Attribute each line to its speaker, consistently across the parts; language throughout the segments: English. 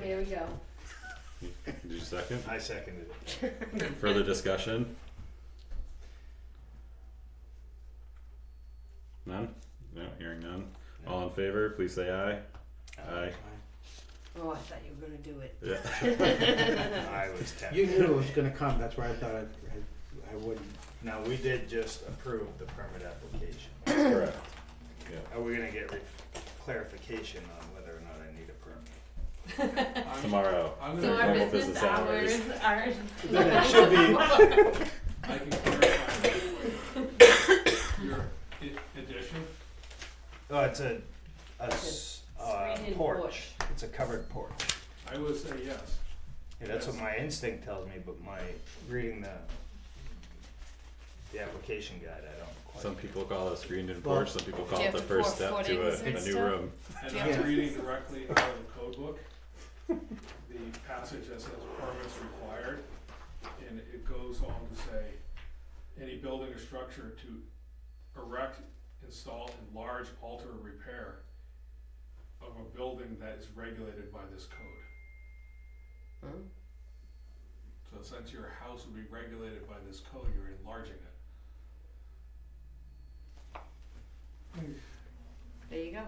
Speaker 1: there we go.
Speaker 2: Did you second?
Speaker 3: I seconded it.
Speaker 2: Further discussion? None? No, hearing none. All in favor, please say aye. Aye.
Speaker 1: Oh, I thought you were gonna do it.
Speaker 2: Yeah.
Speaker 3: I was tempted.
Speaker 4: You knew it was gonna come, that's why I thought I, I, I wouldn't.
Speaker 3: Now, we did just approve the permit application.
Speaker 2: Correct.
Speaker 3: Are we gonna get re- clarification on whether or not I need a permit?
Speaker 5: I'm,
Speaker 2: Tomorrow.
Speaker 5: I'm
Speaker 1: So
Speaker 2: Normal
Speaker 1: our
Speaker 5: gonna,
Speaker 1: business
Speaker 2: business hours.
Speaker 1: hours are.
Speaker 3: Then it should be,
Speaker 5: I can clarify right away. Your i- addition,
Speaker 3: oh, it's a, a s- uh,
Speaker 1: Screened-in
Speaker 3: porch.
Speaker 1: porch.
Speaker 3: It's a covered porch.
Speaker 5: I would say yes.
Speaker 3: Yeah, that's what my instinct tells me, but my, reading the, the application guide, I don't quite.
Speaker 2: Some people call it a screened in
Speaker 4: Well-
Speaker 2: porch, some people call
Speaker 1: you
Speaker 2: it
Speaker 1: have
Speaker 2: the
Speaker 1: to
Speaker 2: first
Speaker 1: pour
Speaker 2: step to
Speaker 1: footings
Speaker 2: a,
Speaker 1: and
Speaker 2: a new
Speaker 1: stuff?
Speaker 2: room.
Speaker 5: And
Speaker 4: Yeah.
Speaker 5: I'm reading directly out of the code book, the passage that says permits required, and it goes on to say, any building or structure to erect, install, enlarge, alter, or repair of a building that is regulated by this code.
Speaker 1: Hmm.
Speaker 5: So since your house would be regulated by this code, you're enlarging it.
Speaker 1: There you go.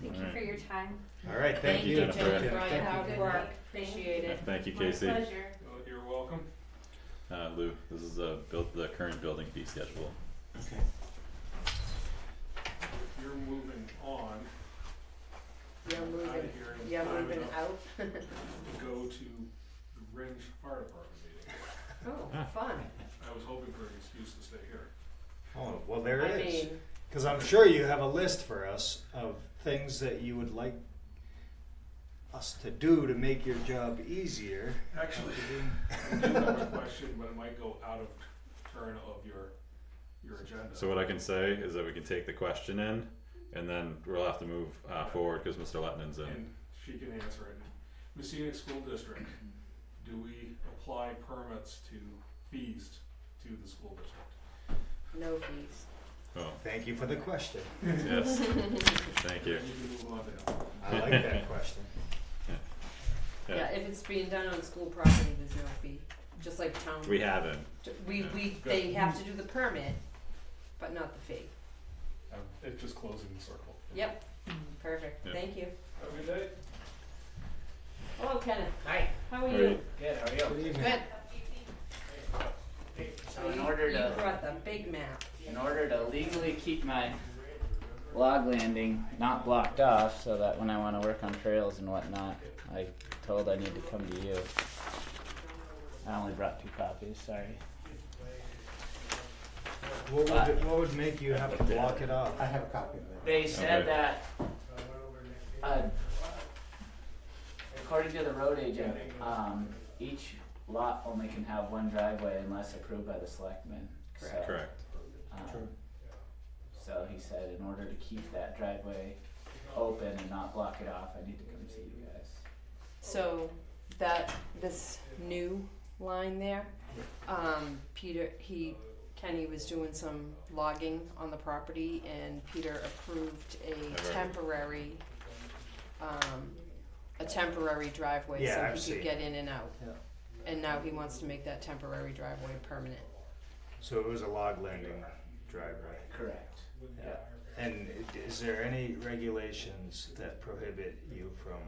Speaker 1: Thank you
Speaker 2: Alright.
Speaker 1: for your time.
Speaker 3: All right, thank you.
Speaker 2: Jennifer.
Speaker 1: Thank you for all your
Speaker 3: Thank you.
Speaker 1: hard work. Appreciate
Speaker 2: Yeah,
Speaker 1: it.
Speaker 2: Thank you, Casey.
Speaker 6: pleasure.
Speaker 5: Well, You're welcome.
Speaker 2: Uh, Lou, this is a build, the current building fee schedule.
Speaker 4: Okay.
Speaker 5: If you're moving on,
Speaker 1: You're
Speaker 5: out of
Speaker 1: moving,
Speaker 5: here in
Speaker 1: you're
Speaker 5: time
Speaker 1: moving
Speaker 5: enough
Speaker 1: out.
Speaker 5: to go to the Ringe Fire Department meeting.
Speaker 1: Oh, fun.
Speaker 5: I was hoping for an excuse to stay here.
Speaker 3: Oh, well, there
Speaker 1: I
Speaker 3: it is.
Speaker 1: mean,
Speaker 3: Because I'm sure you have a list for us of things that you would like us to do to make your job easier.
Speaker 5: Actually, I do have a question, but it might go out of turn of your, your agenda.
Speaker 2: So what I can say is that we can take the question in and then we'll have to move uh, forward because Mr. Letnin's in.
Speaker 5: And she can answer it. Messina School District, do we apply permits to fees to the school district?
Speaker 1: no fees.
Speaker 2: Oh,
Speaker 3: Thank you for the question.
Speaker 2: yes. Thank you.
Speaker 5: You can move on to that.
Speaker 3: I like that question.
Speaker 2: Yeah.
Speaker 1: Yeah, if it's being done on school property, there's no fee, just like town.
Speaker 2: We haven't.
Speaker 1: We,
Speaker 2: yeah.
Speaker 1: we, they have to do the permit, but not the fee.
Speaker 5: Um, It's just closing the circle.
Speaker 1: Yep, perfect,
Speaker 2: Yeah.
Speaker 1: thank you.
Speaker 5: Have a good day.
Speaker 1: Hello Kenneth. Hi. How are
Speaker 2: All right.
Speaker 1: you?
Speaker 7: Good, how are you?
Speaker 4: Good evening.
Speaker 1: Good.
Speaker 7: So in
Speaker 1: You-
Speaker 7: order
Speaker 1: You
Speaker 7: to,
Speaker 1: brought the big map.
Speaker 7: in order to legally keep my log landing not blocked off, so that when I wanna work on trails and whatnot, I told I need to come to you. I only brought two copies, sorry.
Speaker 3: What would, it- what would make you have to block it off?
Speaker 4: I have a copy of that.
Speaker 7: They said
Speaker 2: Okay.
Speaker 7: that, uh, according to the road agent, um, each lot only can have one driveway unless approved by the selectmen, so.
Speaker 2: Correct.
Speaker 7: um,
Speaker 4: True.
Speaker 7: So he said, in order to keep that driveway open and not block it off, I need to come see you guys.
Speaker 1: So that, this new line there, um, Peter, he, Kenny was doing some logging on the property and Peter approved a
Speaker 2: Alright.
Speaker 1: temporary, um, a temporary driveway
Speaker 3: Yeah, I've
Speaker 1: so he
Speaker 3: seen
Speaker 1: could get in and out.
Speaker 3: Yeah.
Speaker 1: And now he wants to make that temporary driveway permanent.
Speaker 3: So it was a log landing driveway.
Speaker 7: Correct.
Speaker 3: Yeah. And i- is there any regulations that prohibit you from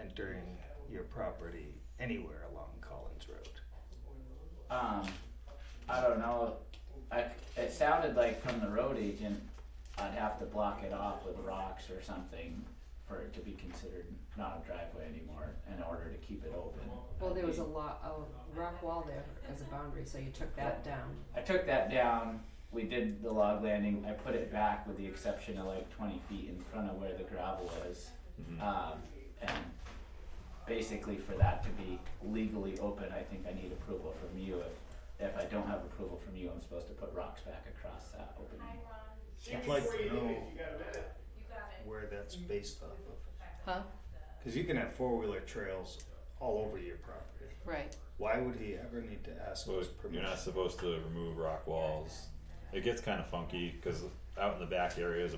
Speaker 3: entering your property anywhere along Collins Road?
Speaker 7: Um, I don't know, I, it sounded like from the road agent, I'd have to block it off with rocks or something for it to be considered not a driveway anymore in order to keep it open.
Speaker 1: Well, there was a lot, a rock wall there as a boundary, so you took that down.
Speaker 7: I took that down, we did the log landing, I put it back with the exception of like twenty feet in front of where the gravel was. Um, and basically for that to be legally open, I think I need approval from you. If, if I don't have approval from you, I'm supposed to put rocks back across that opening.
Speaker 3: I'd like to know where that's based off of.
Speaker 1: Huh?
Speaker 3: Because you can have four wheeler trails all over your property.
Speaker 1: Right.
Speaker 3: Why would he ever need to ask
Speaker 2: So
Speaker 3: us
Speaker 2: you're
Speaker 3: permission?
Speaker 2: not supposed to remove rock walls. It gets kind of funky because out in the back areas